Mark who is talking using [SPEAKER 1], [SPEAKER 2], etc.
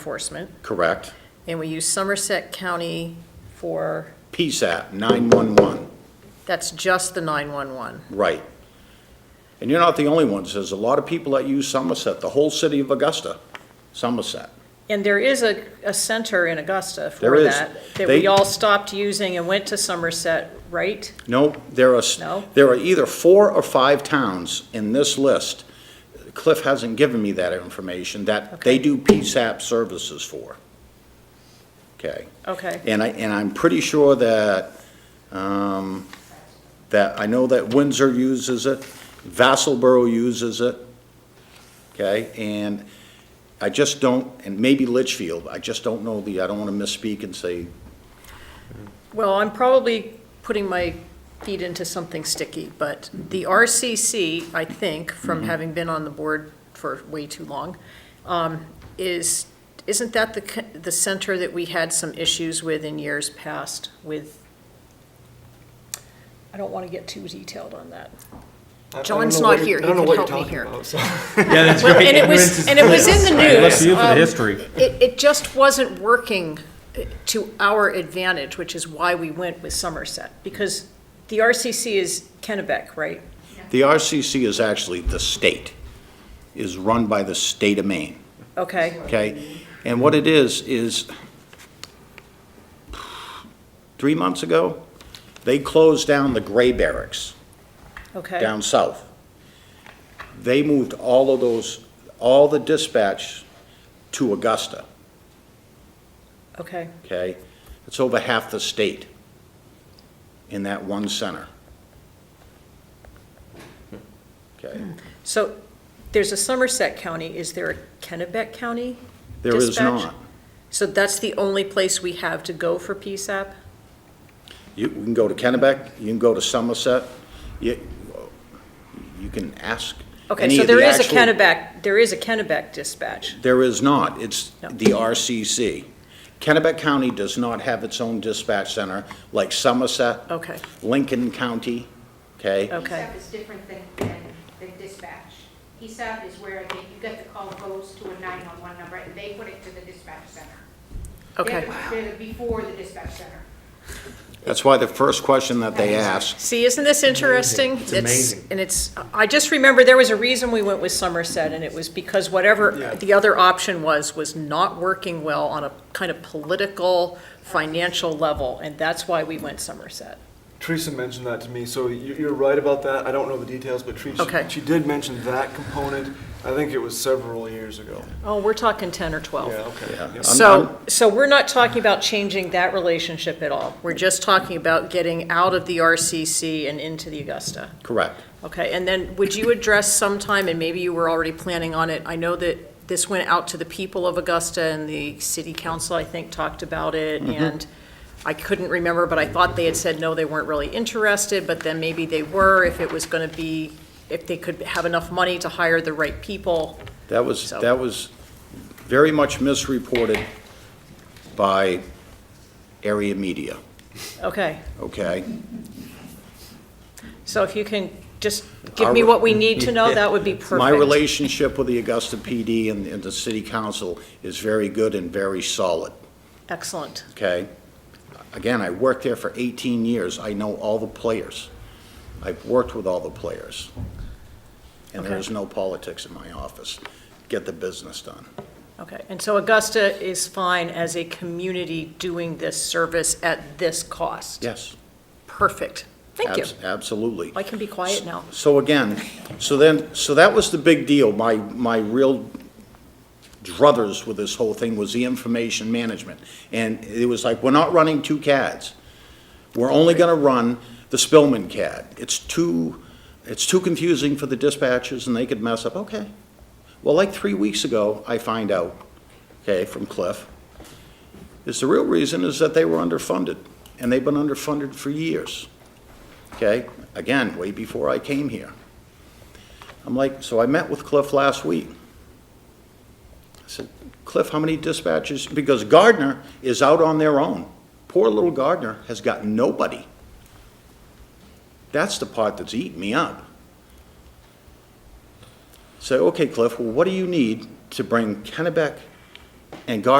[SPEAKER 1] enforcement,
[SPEAKER 2] Correct.
[SPEAKER 1] and we use Somerset County for,
[SPEAKER 2] PSAP, 911,
[SPEAKER 1] that's just the 911.
[SPEAKER 2] right. And you're not the only ones. There's a lot of people that use Somerset, the whole city of Augusta, Somerset.
[SPEAKER 1] And there is a, a center in Augusta
[SPEAKER 2] There
[SPEAKER 1] for
[SPEAKER 2] is.
[SPEAKER 1] that, that we
[SPEAKER 2] They-
[SPEAKER 1] all stopped using and went to Somerset, right?
[SPEAKER 2] No, there are, s-
[SPEAKER 1] No?
[SPEAKER 2] there are either four or five towns in this list, Cliff hasn't given me that information, that they do PSAP services for. Okay?
[SPEAKER 1] Okay.
[SPEAKER 2] And I, and I'm pretty sure that, um, that, I know that Windsor uses it, Vassalboro uses it, okay? And I just don't, and maybe Litchfield, I just don't know the, I don't want to misspeak and say,
[SPEAKER 1] Well, I'm probably putting my feet into something sticky, but the RCC, I think, from having been on the board for way too long, um, is, isn't that the, c- the center that we had some issues with in years past with? I don't want to get too detailed on that.
[SPEAKER 3] I- I don't
[SPEAKER 1] John's
[SPEAKER 3] know what
[SPEAKER 1] not
[SPEAKER 3] you're-
[SPEAKER 1] here.
[SPEAKER 3] I don't
[SPEAKER 1] He
[SPEAKER 3] know
[SPEAKER 1] can
[SPEAKER 3] what
[SPEAKER 1] help
[SPEAKER 3] you're
[SPEAKER 1] me
[SPEAKER 3] talking
[SPEAKER 1] here.
[SPEAKER 3] about, so-
[SPEAKER 4] Yeah, that's
[SPEAKER 1] Well,
[SPEAKER 4] right.
[SPEAKER 1] and it
[SPEAKER 4] Ignorance
[SPEAKER 1] was,
[SPEAKER 4] is
[SPEAKER 1] and it was in the
[SPEAKER 4] bliss.
[SPEAKER 1] news.
[SPEAKER 4] Look to you for the
[SPEAKER 1] Um,
[SPEAKER 4] history.
[SPEAKER 1] It, it just wasn't working eh, to our advantage, which is why we went with Somerset, because the RCC is Kennebec, right?
[SPEAKER 2] The RCC is actually the state, is run by the state of Maine,
[SPEAKER 1] Okay,
[SPEAKER 2] okay? And what it is, is three months ago, they closed down the gray barracks
[SPEAKER 1] okay,
[SPEAKER 2] down south. They moved all of those, all the dispatch to Augusta,
[SPEAKER 1] okay.
[SPEAKER 2] okay? It's over half the state in that one center. Okay?
[SPEAKER 1] Hmm. So there's a Somerset County, is there a Kennebec County?
[SPEAKER 2] There is
[SPEAKER 1] dispatch?
[SPEAKER 2] not.
[SPEAKER 1] So that's the only place we have to go for PSAP?
[SPEAKER 2] You, we can go to Kennebec, you can go to Somerset, you, you can ask.
[SPEAKER 1] Okay,
[SPEAKER 2] any
[SPEAKER 1] so
[SPEAKER 2] of the
[SPEAKER 1] there is a
[SPEAKER 2] actual-
[SPEAKER 1] Kennebec, there is a Kennebec dispatch.
[SPEAKER 2] There is not, it's
[SPEAKER 1] No.
[SPEAKER 2] the RCC. Kennebec County does not have its own dispatch center like Somerset.
[SPEAKER 1] Okay.
[SPEAKER 2] Lincoln County, okay?
[SPEAKER 1] Okay.
[SPEAKER 5] ESAP is different than, than than dispatch. ESAP is where they- you get the call, it goes to a 911 number, and they put it to the dispatch center. They're
[SPEAKER 1] Okay.
[SPEAKER 5] the- They're the before the dispatch center.
[SPEAKER 2] That's why the first question that they ask,
[SPEAKER 1] See, isn't this interesting?
[SPEAKER 3] It's amazing.
[SPEAKER 1] And it's, I just remember there was a reason we went with Somerset, and it was because whatever
[SPEAKER 3] Yeah.
[SPEAKER 1] the other option was, was not working well on a kind of political, financial level, and that's why we went Somerset.
[SPEAKER 3] Teresa mentioned that to me, so you- you're right about that. I don't know the details, but Teresa,
[SPEAKER 1] Okay.
[SPEAKER 3] she did mention that component. I think it was several years ago.
[SPEAKER 1] Oh, we're talking 10 or
[SPEAKER 3] Yeah,
[SPEAKER 1] 12.
[SPEAKER 3] okay.
[SPEAKER 2] Yeah.
[SPEAKER 3] Yep.
[SPEAKER 1] So, so we're not talking about changing that relationship at all. We're just talking about getting out of the RCC and into the Augusta.
[SPEAKER 2] correct.
[SPEAKER 1] Okay, and then would you address sometime, and maybe you were already planning on it, I know that this went out to the people of Augusta and the city council, I think, talked about it, and I couldn't remember, but I thought they had said, no, they weren't really interested, but then maybe they were, if it was gonna be, if they could have enough money to hire the right people.
[SPEAKER 2] That was,
[SPEAKER 1] So-
[SPEAKER 2] that was very much misreported by area media,
[SPEAKER 1] Okay,
[SPEAKER 2] okay?
[SPEAKER 1] so if you can just give me
[SPEAKER 2] Our-
[SPEAKER 1] what we need to know, that would be perfect.
[SPEAKER 2] My relationship with the Augusta PD and, and the city council is very good and very solid,
[SPEAKER 1] Excellent,
[SPEAKER 2] okay? Again, I worked there for 18 years. I know all the players. I've worked with all the players. And there
[SPEAKER 1] Okay.
[SPEAKER 2] is no politics in my office. Get the business done.
[SPEAKER 1] okay. And so Augusta is fine as a community doing this service at this cost?
[SPEAKER 2] Yes.
[SPEAKER 1] Perfect. Thank you.
[SPEAKER 2] abs- Absolutely.
[SPEAKER 1] I can be quiet now.
[SPEAKER 2] So again, so then, so that was the big deal. My, my real druthers with this whole thing was the information management. And it was like, we're not running two CADs. We're only gonna run the Spillman CAD. It's too, it's too confusing for the dispatchers and they could mess up. Okay. Well, like three weeks ago, I find out, okay, from Cliff, is the real reason is that they were underfunded. And they've been underfunded for years okay? Again, way before I came here. I'm like, so I met with Cliff last week. I said, Cliff, how many dispatches? Because Gardner is out on their own. Poor little Gardner has got nobody. That's the part that's eating me up. Say, okay, Cliff, well, what do you need to bring Kennebec And God